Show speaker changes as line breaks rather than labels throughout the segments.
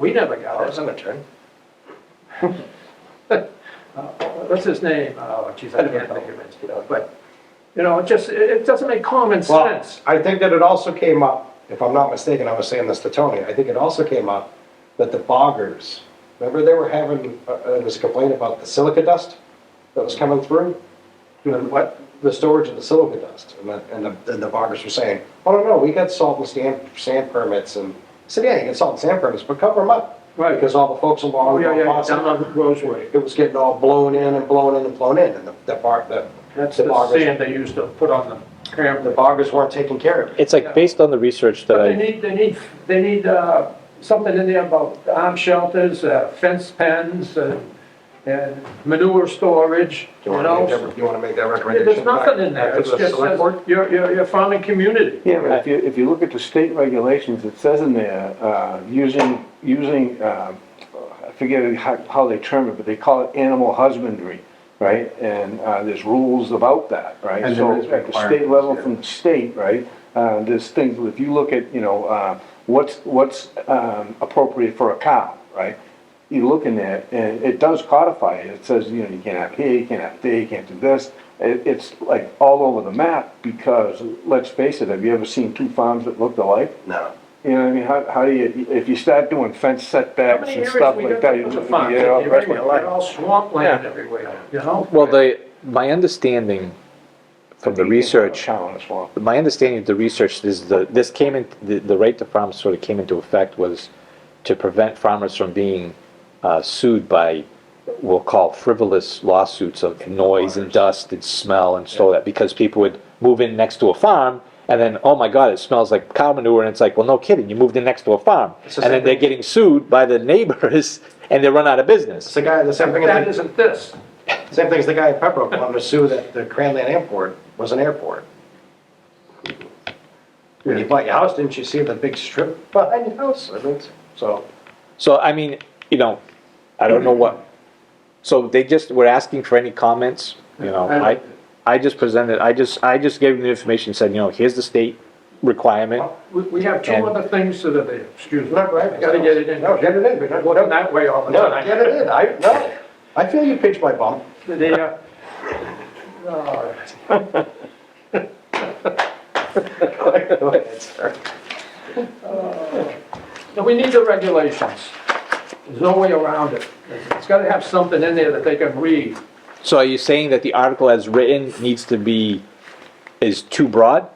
We never got it.
That was an attorney.
Uh, What's his name? Oh, geez, I can't think of it. But, you know, it just, it it doesn't make common
Well,
sense.
I think that it also came up, if I'm not mistaken, I was saying this to Tony, I think it also came up that the boggers, remember they were having, uh, uh, there was a complaint about the silica dust that was coming through? And what, the storage of the silica dust, and the, and the, and the boggers were saying, oh, no, no, we got salt and sand, sand permits, and, I said, yeah, you get salt and sand permits, but cover them up.
Right.
Because all the folks
Oh,
along,
yeah, yeah, yeah,
Mount
down
Possum,
on Roseway.
it was getting all blown in and blown in and blown in, and the, the bar, the.
That's the
boggers-
sand they used to put on the
The
camera.
boggers weren't taking care of it.
It's like, based on the research that
But they
I,
need, they need, they need uh, something in there about arm shelters, uh, fence pens, and and manure storage,
Do
you
you want to make
know?
that, you want to make that recommendation?
There's
back-
nothing in there.
back
It's
to the
just,
select
says
board?
your, your, your farming community.
Yeah, but if you, if you look at the state regulations, it says in there, uh, using, using, uh, I forget how, how they term it, but they call it animal husbandry, right? And, uh, there's rules about that, right?
And there
So
is
at the state level
requirements,
from the state, right, uh, there's things, if you look at, you know, uh, what's, what's, um, appropriate for a cow, right? You look in there, and it does codify it, it says, you know, you can't have here, you can't have there, you can't do this. It, it's like all over the map, because, let's face it, have you ever seen two farms that looked alike?
No.
You know what I mean, how, how do you, if you start doing fence
How
setbacks
many
and
areas
stuff
we
like
got
that, you uh,
with
just,
the farms?
you know,
They-
that's
they-
what
they're all swampland everywhere, you know?
well, the, my understanding from the research,
Town as well.
my understanding of the research is the, this came in, the, the right to farm sort of came into effect was to prevent farmers from being uh, sued by, we'll call frivolous lawsuits of noise and dust and smell and so that, because people would move in next to a farm and then, oh my God, it smells like cow manure, and it's like, well, no kidding, you moved in next to a farm.
the
And
same
then they're
thing.
getting sued by the neighbors and they run out of business.
It's the guy, the same thing,
That
as
isn't this.
the- same thing as the guy at Pembroke wanted to sue that the Cranland Airport was an airport. When you bought your house, didn't you see the big strip behind your house? I mean, So,
So, I mean, you know, I don't know what, so they just were asking for any comments, you know,
I
I,
liked it.
I just presented, I just, I just gave them the information, said, you know, here's the state requirement.
We, we have two
And-
other things that are there, excuse me.
not right.
Gotta get it in.
No, get it in.
We're not looking that way all the
No,
time.
get it in. I, no, I feel you pinch my bum.
The, uh, no,
Go ahead, sir.
no, we need the regulations. There's no way around it. It's gotta have something in there that they can read.
So are you saying that the article as written needs to be, is too broad?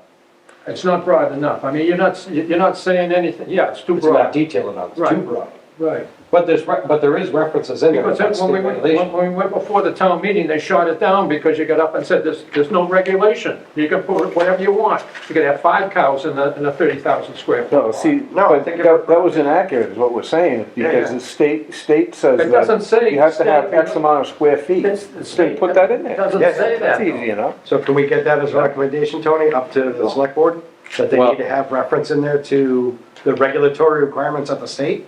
It's not broad enough. I mean, you're not, you're not saying anything. Yeah, it's too
It's not
broad.
detailed enough, it's too
Right.
broad.
Right.
But there's, re- but there is references in there
Because
about
then when we
state
went,
regulations.
when we went before the town meeting, they shot it down because you got up and said, there's, there's no regulation. You can put whatever you want. You can have five cows in a, in a thirty thousand square foot.
No, see,
No, I
but
think
that,
it-
that was inaccurate, is what we're saying, because
yeah.
the state, state says
It doesn't
that
say
you have to have
state,
X
you know.
amount of square feet.
It's- the
Then
state
put that in there.
doesn't
Yeah,
say
That's
that,
easy enough.
So can we get that as a recommendation, Tony, up to the select board? That they
Well-
need to have reference in there to the regulatory requirements of the state?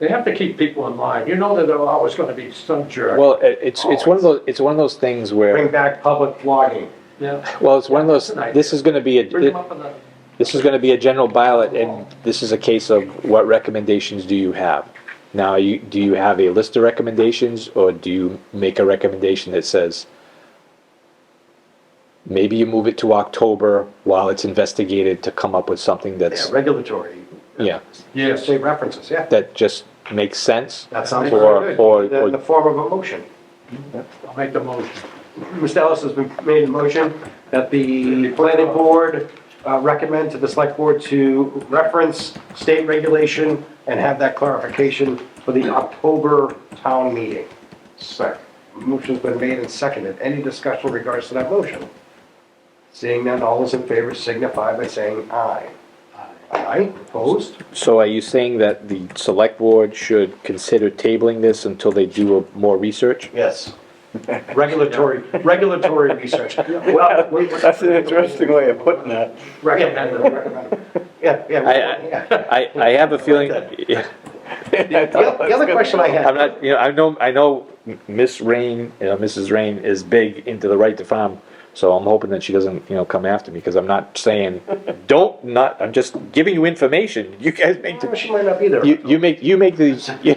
They have to keep people in line. You know that there are always gonna be some jerk.
Well, it- it's, it's one of those, it's one of those things
Bring
where,
back public flogging.
Yeah.
well, it's one of those, this is gonna be
Bring them
a,
up in the,
this is gonna be a general ballot, and this is a case of what recommendations do you have? Now, you, do you have a list of recommendations, or do you make a recommendation that says, maybe you move it to October while it's investigated to come up with something
Yeah,
that's,
regulatory,
yeah,
yes.
state references, yeah.
that just makes sense?
That sounds
Or-
very
or-
good. In the
or-
form of a motion.
I'll make the motion.
Mr. Ellis has been made a motion that the planning board uh, recommend to the select board to reference state regulation and have that clarification for the October town meeting. Second. Motion's been made and seconded. Any discussion in regards to that motion? Seeing none, all those in favor signify by saying aye. Aye, opposed?
So are you saying that the select board should consider tabling this until they do a- more research?
Yes. Regulatory, regulatory research. Well, we-
That's an interesting way of putting that.
Recommended.
Yeah, yeah. we-
I- I-
yeah.
I, I have a feeling, yeah.
The oth- the other question I
I'm
had,
not, you know, I know, I know Miss Rain, you know, Mrs. Rain is big into the right to farm So I'm hoping that she doesn't, you know, come after me, because I'm not saying, don't not, I'm just giving you information, you guys make
She
the,
might not be there.
you, you make, you make the,